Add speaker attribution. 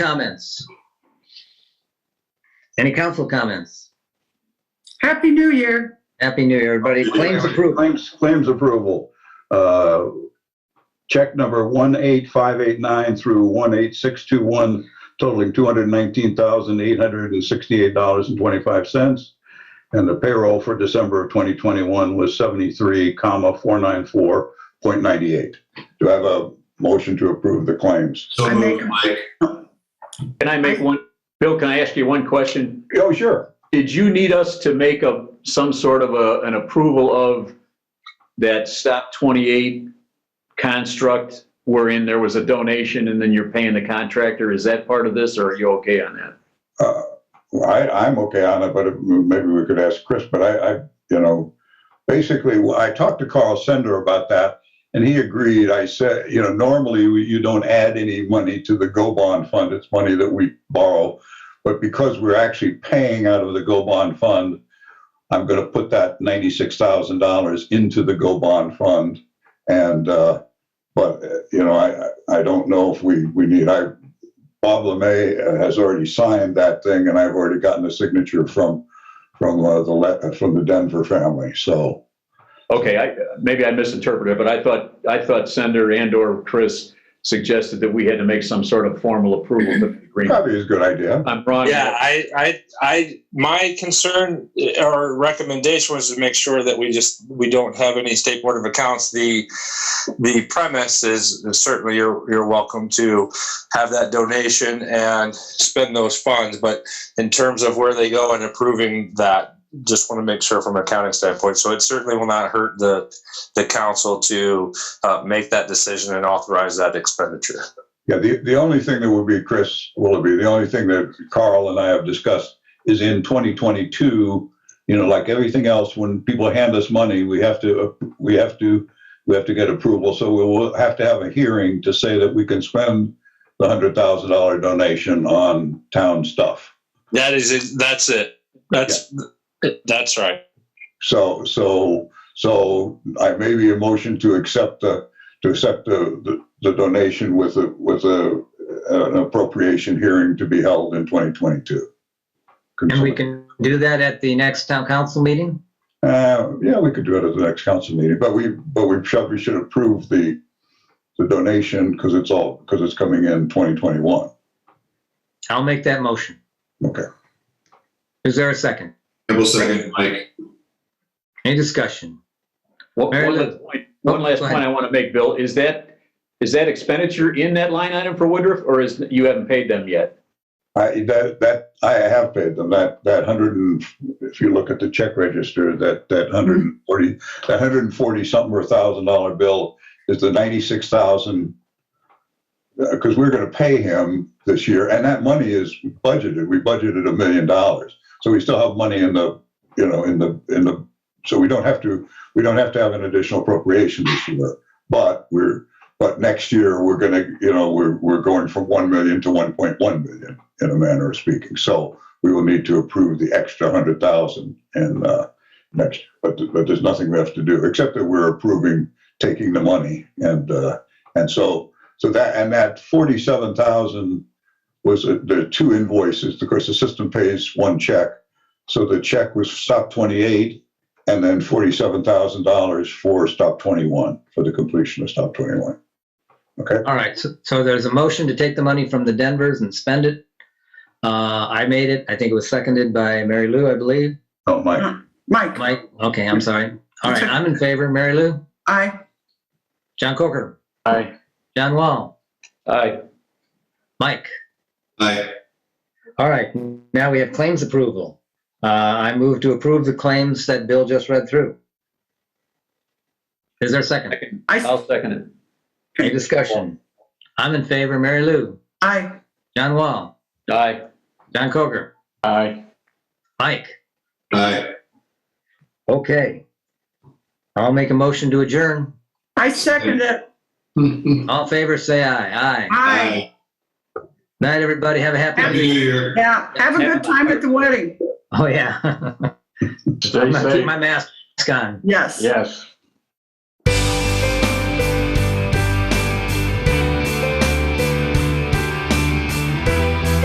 Speaker 1: comments? Any council comments?
Speaker 2: Happy New Year.
Speaker 1: Happy New Year, everybody. Claims approved.
Speaker 3: Claims, claims approval. Uh, Check number 18589 through 18621 totaling $219,868.25. And the payroll for December of 2021 was 73, comma, 494.98. Do I have a motion to approve the claims?
Speaker 2: I
Speaker 4: So
Speaker 2: make
Speaker 4: moved, Mike.
Speaker 5: Can I make one, Bill, can I ask you one question?
Speaker 3: Oh, sure.
Speaker 5: Did you need us to make a, some sort of a, an approval of that stop 28 construct wherein there was a donation and then you're paying the contractor? Is that part of this or are you okay on that?
Speaker 3: Uh, I, I'm okay on it, but it- maybe we could ask Chris, but I, I, you know, basically, I talked to Carl Sender about that, and he agreed. I said, you know, normally we- you don't add any money to the Go Bond Fund. It's money that we borrow. But because we're actually paying out of the Go Bond Fund, I'm going to put that ninety-six thousand dollars into the Go Bond Fund. And, uh, but, uh, you know, I, I- I don't know if we, we need, I, Bob Lemay uh, has already signed that thing, and I've already gotten a signature from from uh, the Le- from the Denver family. So
Speaker 5: Okay, I, maybe I misinterpreted, but I thought, I thought Senator and or Chris suggested that we had to make some sort of formal approval to the agreement.
Speaker 3: probably is a good idea.
Speaker 5: I'm wrong.
Speaker 4: Yeah, I, I, I, my concern eh, or recommendation was to make sure that we just, we don't have any state board of accounts. The, the premise is certainly you're, you're welcome to have that donation and spend those funds. But in terms of where they go and approving that, just want to make sure from an accounting standpoint. So it certainly will not hurt the, the council to uh, make that decision and authorize that expenditure.
Speaker 3: Yeah, the the only thing that would be Chris Willoughby. The only thing that Carl and I have discussed is in 2022. You know, like everything else, when people hand us money, we have to we have to we have to get approval. So we will have to have a hearing to say that we can spend the hundred thousand dollar donation on town stuff.
Speaker 4: That is, it. that's it. That's, that's right.
Speaker 3: So, so, so I made the motion to accept the, to accept the, the- the donation with a, with a, an appropriation hearing to be held in 2022.
Speaker 1: And we can do that at the next town council meeting?
Speaker 3: Uh, yeah, we could do it at the next council meeting, but we, but we should, we should approve the, the donation because it's all, because it's coming in 2021.
Speaker 1: I'll make that motion.
Speaker 3: Okay.
Speaker 1: Is there a second?
Speaker 4: Campbell second, Mike.
Speaker 1: Any discussion?
Speaker 5: One one
Speaker 1: Meredith.
Speaker 5: last point, one
Speaker 1: Oh,
Speaker 5: last
Speaker 1: go
Speaker 5: point
Speaker 1: ahead.
Speaker 5: I want to make, Bill, is that, is that expenditure in that line item for Woodruff, or is, you haven't paid them yet?
Speaker 3: I, that, that, I have paid them, that, that hundred and, if you look at the check register, that, that hundred and forty, that hundred and forty something or thousand dollar bill is the ninety-six thousand, because we're gonna pay him this year, and that money is budgeted, we budgeted a million dollars. So we still have money in the, you know, in the, in the, so we don't have to, we don't have to have an additional appropriation this year. But we're, but next year, we're gonna, you know, we're, we're going from one million to one point one million in a manner of speaking. So we will need to approve the extra hundred thousand and uh, next, but, but there's nothing we have to do except that we're approving taking the money and uh, and so so that and that forty seven thousand was a, there are two invoices. Of course, the system pays one check, so the check was stop twenty eight. And then forty-seven thousand dollars for stop twenty-one for the completion of stop twenty-one.
Speaker 1: All right, so, so there's a motion to take the money from the Denvers and spend it. Uh, I made it. I think it was seconded by Mary Lou, I believe.
Speaker 3: Oh, Mike.
Speaker 2: Mike,
Speaker 1: Mike, okay, I'm sorry. All right, I'm in favor. Mary Lou?
Speaker 2: aye.
Speaker 1: John Coker?
Speaker 5: Aye.
Speaker 1: John Wall?
Speaker 5: Aye.
Speaker 1: Mike?
Speaker 4: Aye.
Speaker 1: All right, now we have claims approval. Uh, I move to approve the claims that Bill just read through. Is there a second?
Speaker 2: I,
Speaker 5: I'll second it.
Speaker 1: Any discussion? I'm in favor. Mary Lou,
Speaker 2: aye.
Speaker 1: John Wall,
Speaker 5: Aye.
Speaker 1: John Coker,
Speaker 5: Aye.
Speaker 1: Mike.
Speaker 4: Aye.
Speaker 1: Okay. I'll make a motion to adjourn.
Speaker 2: I second it.
Speaker 1: All in favor, say aye. Aye.
Speaker 2: Aye.
Speaker 1: Night, everybody. Have a happy
Speaker 2: Happy-
Speaker 1: new year.
Speaker 4: Year.
Speaker 2: Yeah, have a good time at the wedding.
Speaker 1: Oh, yeah. I'm
Speaker 5: Stay
Speaker 1: gonna keep
Speaker 5: safe.
Speaker 1: my mask on.
Speaker 2: Yes.
Speaker 5: Yes.